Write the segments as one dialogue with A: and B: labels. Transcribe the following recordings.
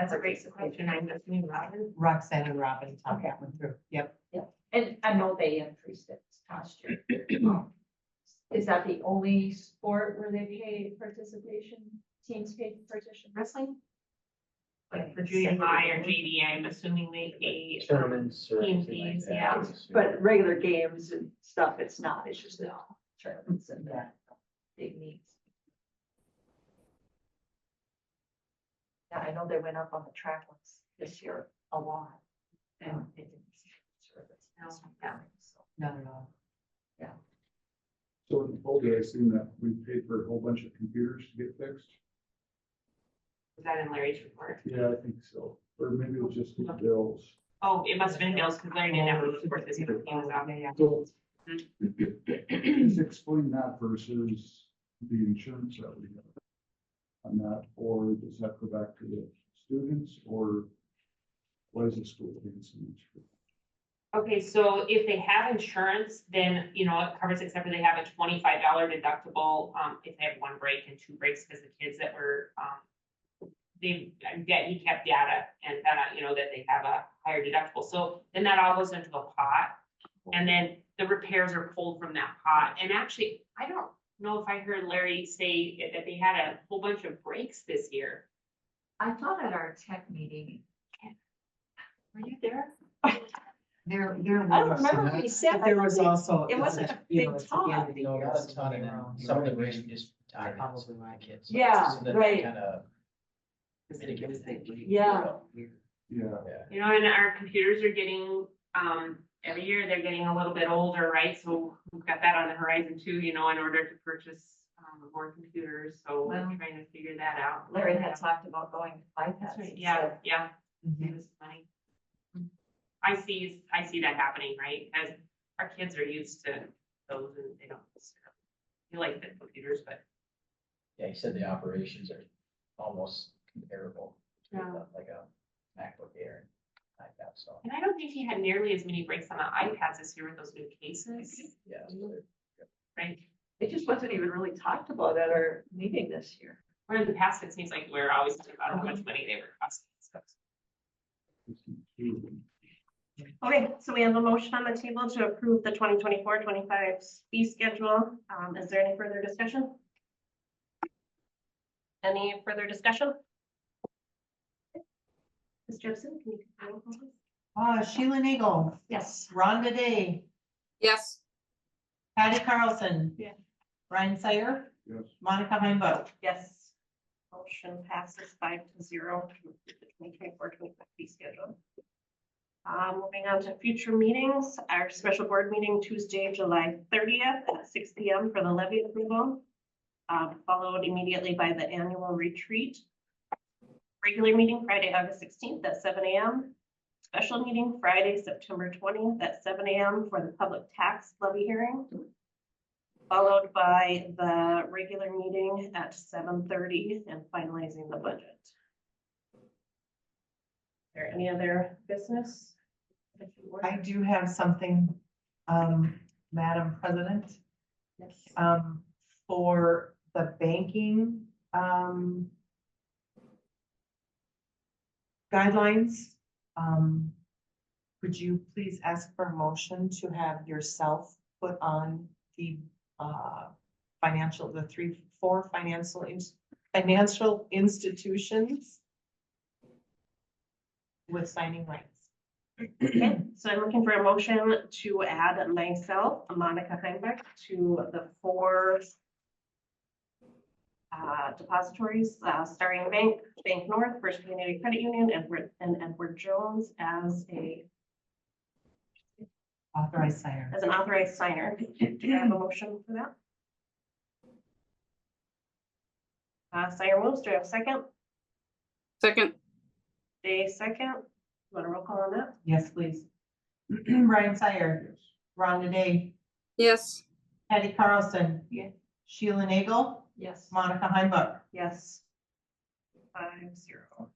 A: that's a great suggestion. I'm just mean Robin.
B: Roxanne and Robin talked that one through. Yep.
C: And I know they increased it this past year. Um, Is that the only sport where they pay participation, teams pay participation?
A: Wrestling? Like for junior high or JV, I'm assuming they pay.
D: Tournaments or
A: Team
D: anything like
A: fees,
D: that.
A: yeah.
E: But regular games and stuff, it's not, it's just the
C: Tournaments and that, big meets.
E: Yeah, I know they went up on the track ones this year a lot. And it didn't serve its purpose. Yeah, so.
B: Not at all.
F: So in Boulder, I seen that we paid for a whole bunch of computers to get fixed.
A: Is that in Larry's report?
F: Yeah, I think so. Or maybe it was just the bills.
A: Oh, it must have been Bill's because Larry didn't have a
B: Oh,
A: report this year. He was out there. yeah.
F: So please explain that versus the insurance that we have on that, or does that go back to the students or what is the school paying so much for?
A: Okay, so if they have insurance, then, you know, it covers except for they have a twenty-five dollar deductible, um, if they have one break and two breaks, because the kids that were, um. They, yeah, he kept data and then, uh, you know, that they have a higher deductible, so then that all goes into a pot. And then the repairs are pulled from that pot, and actually, I don't know if I heard Larry say that they had a whole bunch of breaks this year.
E: I thought at our tech meeting. Were you there?
B: There, there
E: I don't
B: was.
E: remember what he said.
B: But there was also.
E: It wasn't a
B: you know,
E: big
B: it's the end of
E: talk.
B: the
D: No,
B: year,
D: not a
B: so
D: ton,
B: you
D: and
B: know,
D: some of the
B: you're
D: rest is
B: right.
D: retirement.
B: Probably my kids.
E: Yeah,
D: So that
E: right.
D: kinda
B: Because it
D: mitigates
B: was
D: the-
B: that week.
E: Yeah.
F: Yeah,
D: Yeah.
A: You know, and our computers are getting, um, every year they're getting a little bit older, right? So we've got that on the horizon too, you know, in order to purchase, um, more computers. So we're
E: Well-
A: trying to figure that out.
E: Larry had talked about going to
A: That's
E: iPads.
A: right, yeah, yeah,
B: Mhm.
A: it was funny. I see, I see that happening, right? As our kids are used to those and they don't. necessarily- They like the computers, but
D: Yeah, he said the operations are almost comparable. between
A: Yeah.
D: Like a MacBook Air and iPad, so,
A: and I don't think he had nearly as many breaks on the iPads this year with those new cases,
D: yeah. so they're-
A: right?
E: It just wasn't even really talked about at our meeting this year.
A: Where in the past, it seems like we're always talking about how much money they were costing. So
F: it's completely.
G: Okay, so we have a motion on the table to approve the 2024-25 fee schedule. Um, is there any further discussion? Any further discussion? Ms. Jepson, can you? confirm the vote?
B: Uh, Sheila Nagel,
G: Yes.
B: Rhonda Day,
H: Yes.
B: Patty Carlson.
G: Yeah.
B: Ryan Sayer,
F: Yes.
B: Monica Heimbo.
G: Yes. Motion passes five to zero to approve the 2024-25 fee schedule. Um, moving on to future meetings, our special board meeting Tuesday, July thirtieth at six P M for the levy approval. um, followed immediately by the annual retreat. Regular meeting Friday, August sixteenth at seven A M. Special meeting Friday, September twentieth at seven A M for the public tax levy hearing followed by the regular meeting at seven thirty and finalizing the budget. There any other business? that you want?
B: I do have something, um, Madam President.
G: Yes.
B: um, for the banking, um, guidelines, um, could you please ask for a motion to have yourself put on the, uh, financial, the three, four financial, ins- financial institutions with signing rights?
G: Okay, so I'm looking for a motion to add myself, Monica Heinbeck, to the four uh, depositories, uh, Starting Bank, Bank North, First Community Credit Union, Edward, and Edward Jones as a,
B: Authorized signer.
G: as an authorized signer. Do I have a motion for that? Uh, Sire moves, do I have a second?
H: Second.
G: Day second, want to roll call on that?
B: Yes, please. Brian Sayer,
F: Yes.
B: Rhonda Day,
H: Yes.
B: Patty Carlson.
E: Yeah.
B: Sheila Nagel,
E: Yes.
B: Monica Heimbach.
G: Yes. Five zero.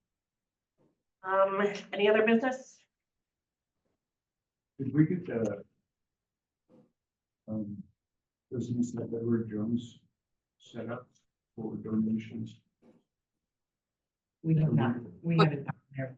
G: Um, any other business?
F: Did we get the um, business that Edward Jones set up for donations?
B: We have not, we haven't.